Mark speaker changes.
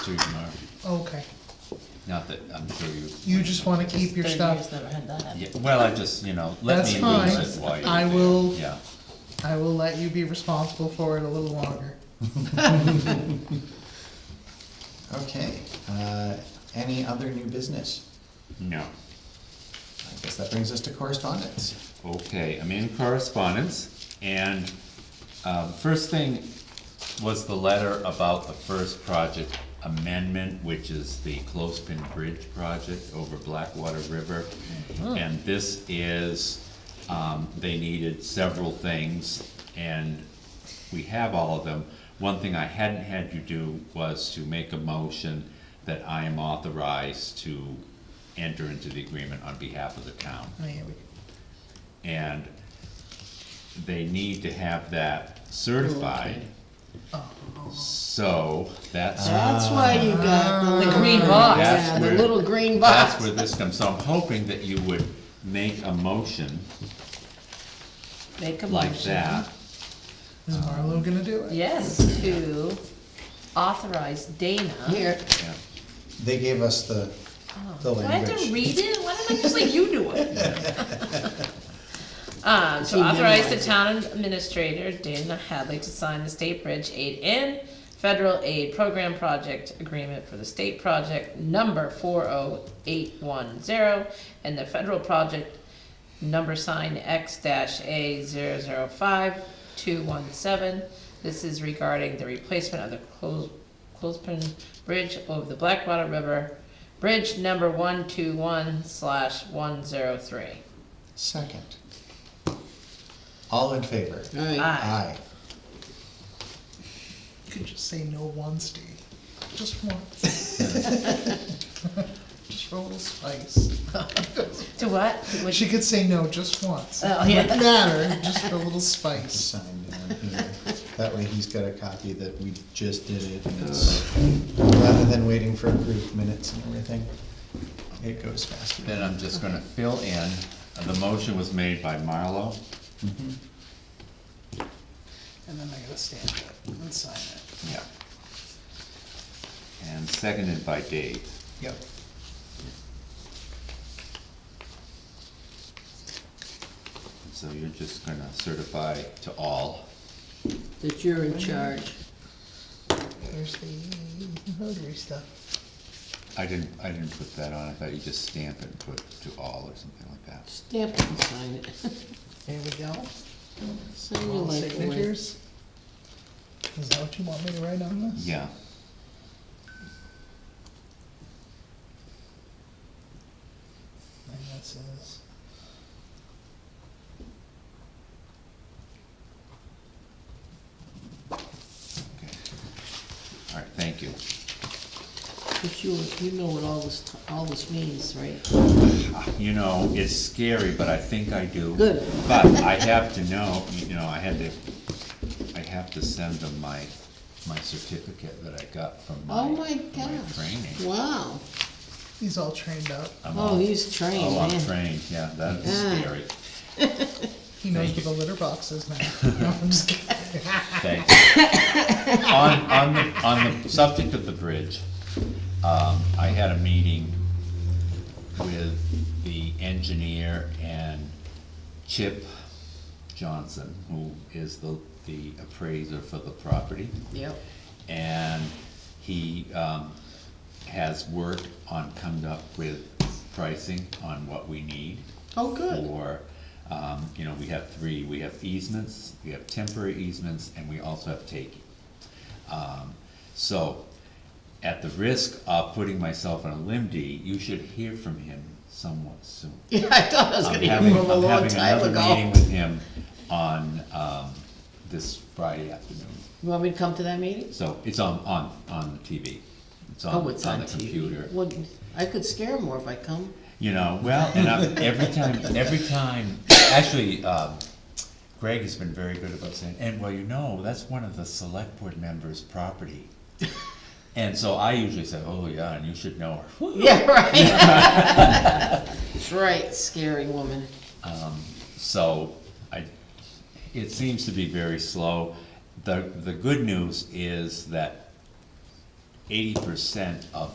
Speaker 1: through tomorrow.
Speaker 2: Okay,
Speaker 1: Not that, I'm sure you.
Speaker 2: you just wanna keep your
Speaker 3: Thirty years
Speaker 2: stuff,
Speaker 3: never had that happen.
Speaker 1: Yeah, well, I just, you know, let
Speaker 2: That's
Speaker 1: me
Speaker 2: fine.
Speaker 1: lose it while you're there.
Speaker 2: I will-
Speaker 1: Yeah,
Speaker 2: I will let you be responsible for it a little longer.
Speaker 4: Okay, uh, any other new business?
Speaker 1: no.
Speaker 4: I guess that brings us to correspondence.
Speaker 1: Okay, I'm in correspondence, and, um, first thing was the letter about the first project amendment, which is the Clothespin Bridge project over Blackwater River. And this is, um, they needed several things, and we have all of them. One thing I hadn't had you do was to make a motion that I am authorized to enter into the agreement on behalf of the town
Speaker 2: Oh, yeah, we-
Speaker 1: and they need to have that certified. So that's,
Speaker 3: That's why you got the
Speaker 2: Ah.
Speaker 3: the green box,
Speaker 1: That's
Speaker 3: Ah. Oh, yeah, the
Speaker 1: where-
Speaker 3: little green
Speaker 1: that's
Speaker 3: box.
Speaker 1: where this comes, so I'm hoping that you would make a motion
Speaker 3: Make a
Speaker 1: like
Speaker 3: motion.
Speaker 1: that.
Speaker 2: Is Marlo gonna do it?
Speaker 3: Yes, to authorize Dana.
Speaker 4: Here,
Speaker 1: Yeah.
Speaker 4: they gave us the, the
Speaker 3: Do Oh. I have to
Speaker 4: language.
Speaker 3: read it? Why don't I just let you do it? Uh, to
Speaker 4: She
Speaker 3: authorize the
Speaker 4: memorized
Speaker 3: town administrator, Dana Hadley, to sign the state bridge aid in federal aid program project agreement for the state project number four oh eight one zero and the federal project number sign X dash A zero zero five two one seven. This is regarding the replacement of the close, clothespin bridge over the Blackwater River, bridge number one two one slash one zero three.
Speaker 4: Second. All in favor?
Speaker 3: Aye.
Speaker 4: Aye.
Speaker 2: You could just say no once, Dee, just once. Just roll the spice.
Speaker 3: To what? Which-
Speaker 2: She could say no just once.
Speaker 3: Oh, yeah.
Speaker 2: Wouldn't matter, just a little spice.
Speaker 4: Sign down here. That way he's got a copy that we just did it and it's, rather than waiting for approved minutes and everything, it goes faster.
Speaker 1: Then I'm just gonna fill in, Uh, the motion was made by Marlo,
Speaker 2: And then I gotta stamp it and sign it.
Speaker 1: yeah. And seconded by Dave.
Speaker 4: Yep.
Speaker 1: So you're just gonna certify to all.
Speaker 5: that you're in charge.
Speaker 2: There's the notary stuff.
Speaker 1: I didn't, I didn't put that on, I thought you just stamp it and put to all or something like that.
Speaker 5: Stamp it and sign it.
Speaker 2: There we go.
Speaker 5: Sign your
Speaker 2: All
Speaker 5: life away.
Speaker 2: signatures. Is that what you want me to write on this?
Speaker 1: Yeah.
Speaker 2: And this is.
Speaker 1: Okay. All right, thank you.
Speaker 5: But you, you know what all this, all this means, right?
Speaker 1: You know, it's scary, but I think I do.
Speaker 5: Good.
Speaker 1: But I have to know, you know, I had to, I have to send them my, my certificate that I got from my,
Speaker 5: Oh my
Speaker 1: my
Speaker 5: gosh,
Speaker 1: training.
Speaker 5: wow.
Speaker 2: He's all trained up.
Speaker 1: I'm all-
Speaker 5: Oh, he's trained,
Speaker 1: Oh, I'm
Speaker 5: man.
Speaker 1: trained, yeah, that is
Speaker 5: Yeah.
Speaker 1: scary.
Speaker 2: He knows
Speaker 1: Thank
Speaker 2: where the litter box is now. No, I'm just kidding.
Speaker 1: Thanks. On, on, the- on the subject of the bridge, um, I had a meeting with the engineer and Chip Johnson, who is the, the appraiser for the property.
Speaker 5: Yep.
Speaker 1: And he, um, has worked on coming up with pricing on what we need
Speaker 5: Oh, good.
Speaker 1: for, um, you know, we have three, we have easements, we have temporary easements, and we also have taking. Um, so, at the risk of putting myself on a limb, Dee, you should hear from him somewhat soon.
Speaker 5: Yeah, I thought I was gonna
Speaker 1: I'm
Speaker 5: hear
Speaker 1: having,
Speaker 5: from him a
Speaker 1: I'm
Speaker 5: long
Speaker 1: having
Speaker 5: time
Speaker 1: another meeting
Speaker 5: ago.
Speaker 1: with him on, um, this Friday afternoon,
Speaker 5: You want me to come to that meeting?
Speaker 1: so it's on, on, on the TV. It's
Speaker 5: Oh,
Speaker 1: on,
Speaker 5: it's
Speaker 1: it's on
Speaker 5: on
Speaker 1: the computer.
Speaker 5: TV. Well, I could scare him more if I come.
Speaker 1: You know, well, and i every time, every time, actually, um, Greg has been very good about saying, and well, you know, that's one of the select board members' property. And so I usually say, oh yeah, and you should know her. Whew.
Speaker 5: Yeah, right. That's right, scary woman.
Speaker 1: So I, it seems to be very slow. The, the good news is that eighty percent of